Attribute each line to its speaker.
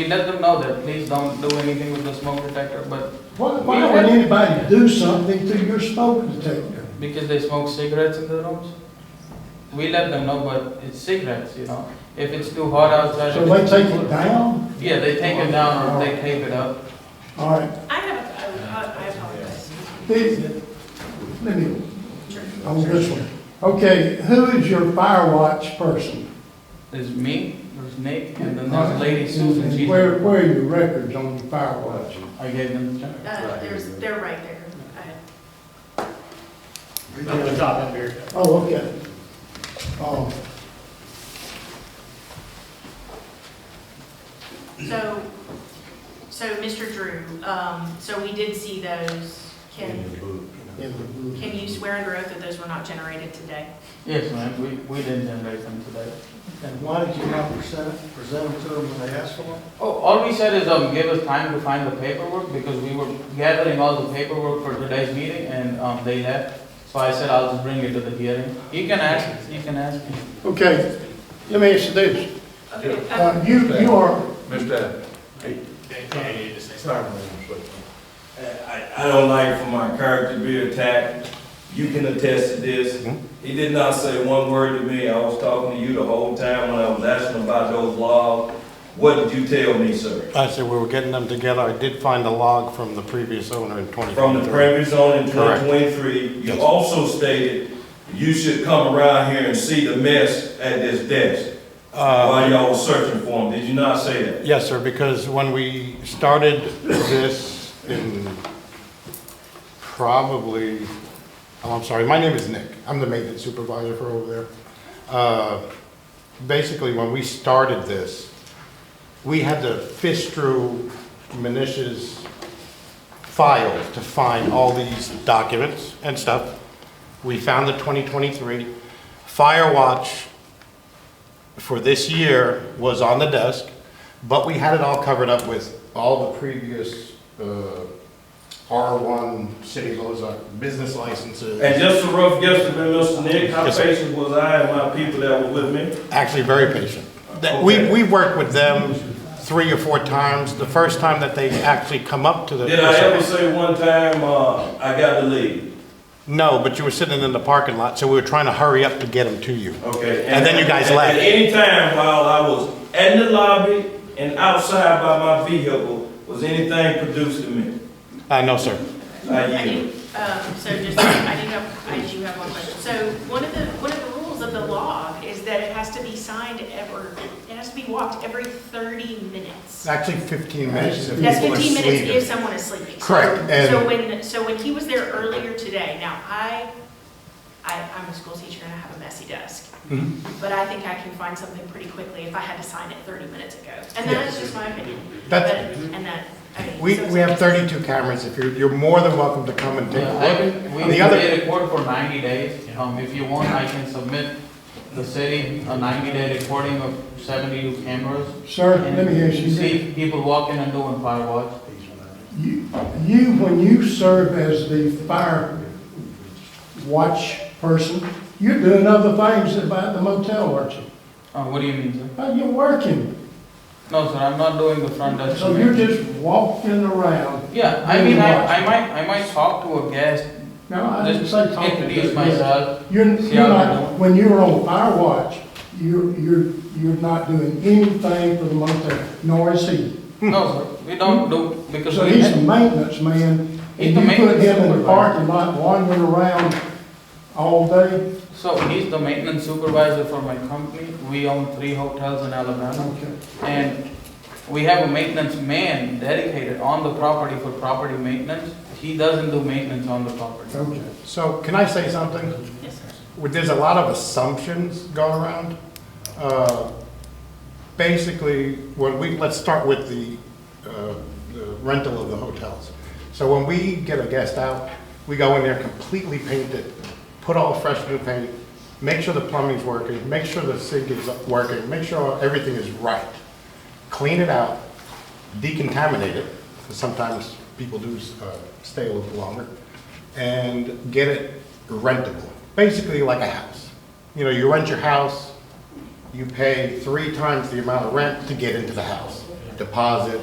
Speaker 1: We let them know that please don't do anything with the smoke detector, but
Speaker 2: Why, why would anybody do something to your smoke detector?
Speaker 1: because they smoke cigarettes in the rooms, we let them know, but it's cigarettes, you know? If it's too hot outside.
Speaker 2: So they take it down?
Speaker 1: Yeah, they take it down or they tape it up.
Speaker 2: All right,
Speaker 3: I have, a- I I apologize.
Speaker 2: Then- let me, on this one. Okay, who is your fire watch person?
Speaker 1: There's me, there's Nick, and then there's Lady
Speaker 2: And-
Speaker 1: Susan,
Speaker 2: and
Speaker 1: she's,
Speaker 2: Where,
Speaker 1: I
Speaker 2: where are your records on the fire watch?
Speaker 1: gave them the check.
Speaker 3: Uh, There's, they're right there. Uh, I-
Speaker 4: Up the top, up here.
Speaker 2: Oh, okay. Oh,
Speaker 3: So, so Mr. Drew, um, so we did see those. Can,
Speaker 2: in the-
Speaker 3: can you swear under oath that those were not generated today?
Speaker 1: Yes, ma'am, we, we didn't generate them today.
Speaker 5: And why did you not present, present them to them when they asked for them?
Speaker 1: Oh, all we said is, um, give us time to find the paperwork, because we were gathering all the paperwork for today's meeting, and, um, they left. So I said, I'll just bring it to the hearing. You can ask, you can ask me.
Speaker 2: Okay, let me ask you this.
Speaker 3: Okay. uh,
Speaker 2: Uh, you, you are,
Speaker 6: Mr. Allen.
Speaker 7: I, I don't like for my character to be attacked. You can attest to this.
Speaker 8: Mm-hmm.
Speaker 7: He did not say one word to me. I was talking to you the whole time when I was asking about those logs. What did you tell me, sir?
Speaker 8: I said we were getting them together. I did find a log from the previous owner in 2023.
Speaker 7: From the previous owner in
Speaker 8: Correct.
Speaker 7: 2023,
Speaker 8: Yes.
Speaker 7: you also stated you should come around here and see the mess at this desk
Speaker 8: Uh,
Speaker 7: while y'all was searching for him. Did you not say that?
Speaker 8: Yes, sir, because when we started this in probably, oh, I'm sorry, my name is Nick. I'm the maintenance supervisor for over there. Uh, Basically, when we started this, we had to fish through Manish's file to find all these documents and stuff. We found the 2023. Firewatch for this year was on the desk, but we had it all covered up with all the previous uh, R1 city laws, business
Speaker 7: And
Speaker 8: licenses.
Speaker 7: just a rough guesstimate, Mr. Nick, how
Speaker 8: Yes, sir.
Speaker 7: patient was I and my people that were with me?
Speaker 8: Actually, very patient. That- We,
Speaker 7: Okay.
Speaker 8: we worked with them three or four times. The first time that they actually come up to the.
Speaker 7: Did I ever say one time, uh, I got to leave?
Speaker 8: No, but you were sitting in the parking lot, so we were trying to hurry up to get them to you.
Speaker 7: Okay.
Speaker 8: And then you guys
Speaker 7: at-
Speaker 8: left.
Speaker 7: At any time while I was in the lobby and outside by my vehicle, was anything produced to me?
Speaker 8: Uh, no, sir.
Speaker 7: I
Speaker 3: I do,
Speaker 7: yield.
Speaker 3: um, so just, I do have, I do have one question. So one of the, one of the rules of the log is that it has to be signed ever, it has to be walked every 30 minutes.
Speaker 8: Actually, 15 minutes. if
Speaker 3: That's
Speaker 8: people are
Speaker 3: 15 minutes
Speaker 8: sleeping.
Speaker 3: if someone is sleeping. So-
Speaker 8: Correct, and-
Speaker 3: So when, so when he was there earlier today, now I, I, I'm a school teacher and I have a messy desk.
Speaker 8: Mm-hmm.
Speaker 3: But I think I can find something pretty quickly if I had to sign it 30 minutes ago. And that is just my opinion. But,
Speaker 8: That's-
Speaker 3: and that, I mean.
Speaker 8: We,
Speaker 3: so it's-
Speaker 8: we have 32 cameras. If you're, you're more than welcome to come and take
Speaker 1: Yeah, I
Speaker 3: Uh,
Speaker 8: a
Speaker 1: can,
Speaker 8: look.
Speaker 1: Uh, we,
Speaker 8: On
Speaker 1: we
Speaker 8: the other,
Speaker 1: record for ninety days, um, if you want, I can submit the city a ninety-day recording of seventy cameras.
Speaker 2: sir, let me ask you
Speaker 1: And
Speaker 2: this.
Speaker 1: See people walking and doing fire watch.
Speaker 2: You, you, when you serve as the fire watch person, you're doing other things about the motel, aren't you?
Speaker 1: Uh, what do you mean, sir?
Speaker 2: Uh, You're working,
Speaker 1: No, sir, I'm not doing the front desk.
Speaker 2: so you're just walking around.
Speaker 1: Yeah, I mean, I, I might, I might talk to a guest,
Speaker 2: No, I didn't
Speaker 1: just
Speaker 2: say talking. to
Speaker 1: introduce
Speaker 2: you.
Speaker 1: myself.
Speaker 2: You're,
Speaker 1: See
Speaker 2: you're
Speaker 1: how they're
Speaker 2: not,
Speaker 1: doing.
Speaker 2: when you were on fire watch, you're, you're, you're not doing anything for the motel, nor is he.
Speaker 1: No, sir, we don't do, because
Speaker 2: So
Speaker 1: we,
Speaker 2: he's a maintenance man,
Speaker 1: He's
Speaker 2: and
Speaker 1: the
Speaker 2: you put
Speaker 1: maintenance
Speaker 2: him in the
Speaker 1: supervisor.
Speaker 2: parking lot wandering around all day?
Speaker 1: so he's the maintenance supervisor for my company. We own three hotels in Alabama.
Speaker 2: Okay.
Speaker 1: And we have a maintenance man dedicated on the property for property maintenance. He doesn't do maintenance on the property.
Speaker 2: Okay.
Speaker 8: so can I say something?
Speaker 3: Yes, sir.
Speaker 8: Well, There's a lot of assumptions going around. Uh, Basically, when we, let's start with the uh, the rental of the hotels. So when we get a guest out, we go in there completely painted, put all fresh new paint, make sure the plumbing's working, make sure the sink is working, make sure everything is right. Clean it out, decontaminate it, because sometimes people do uh, stay a little longer, and get it rentable, basically like a house. You know, you rent your house, you pay three times the amount of rent to get into the house. deposit